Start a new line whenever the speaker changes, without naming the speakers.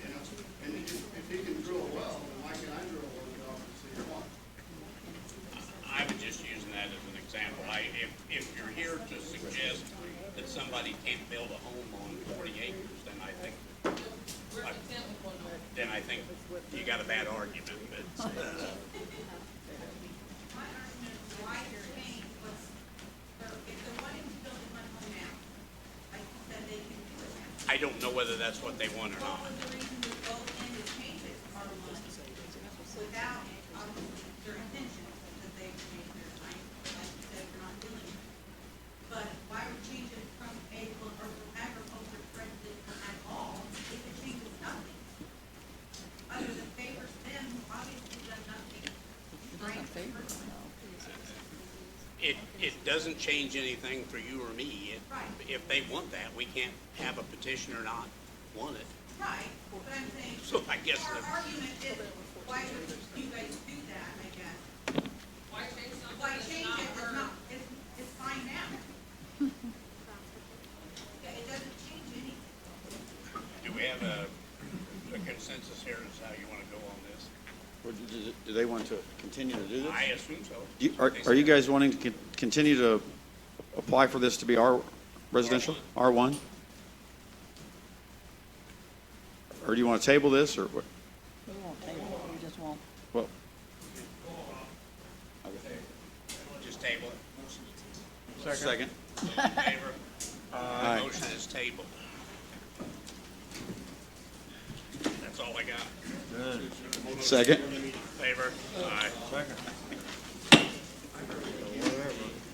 you got a bad argument, but, uh,
My argument is why you're paying was, for- if they're wanting to build one home now, like you said, they can do it now.
I don't know whether that's what they want or
What
not.
was the reason to go in and change it from one without, obviously, their intention, because they changed their mind, like you said, we're not dealing with it. But why would change it from agriculture, or from agriculture friendly at all, if it changes nothing? Other than favors them, who obviously does nothing. Right, personally.
It, it doesn't change anything for you or me. It-
Right.
If they want that, we can't have a petitioner not want it.
Right, but I'm saying.
So I guess
Our
the-
argument is, why would you guys do that, I guess?
Why change something
Why
that's
change
not
it, it's
worth-
not, it's, it's fine now. Yeah, it doesn't change anything.
Do we have a a consensus here as how you want to go on this?
Or do- do do they want to continue to do this?
I assume so.
Do you- Are are you guys wanting to con- continue to apply for this to be R residential, R1? Or do you want to table this, or what?
We won't table it, we just won't.
Well,
Just table it.
Second.
Those in favor?
Aye.
Motion is tabled. That's all I got.
Second?
Favor? Aye.